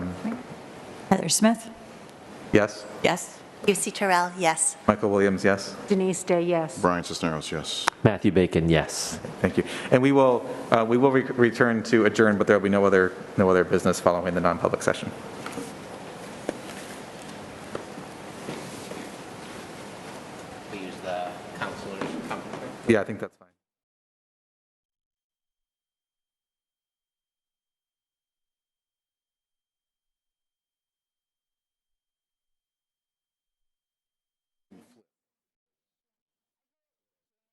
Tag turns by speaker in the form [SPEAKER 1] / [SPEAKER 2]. [SPEAKER 1] Heather Smith?
[SPEAKER 2] Yes.
[SPEAKER 1] Yes.
[SPEAKER 3] Lucy Terrell, yes.
[SPEAKER 2] Michael Williams, yes.
[SPEAKER 4] Denise Day, yes.
[SPEAKER 5] Brian Cisneros, yes.
[SPEAKER 6] Matthew Bacon, yes.
[SPEAKER 2] Thank you. And we will, uh, we will re- return to adjourn, but there will be no other, no other business following the non-public session.
[SPEAKER 7] we use the counselor's conference.
[SPEAKER 2] Yeah, I think that's fine.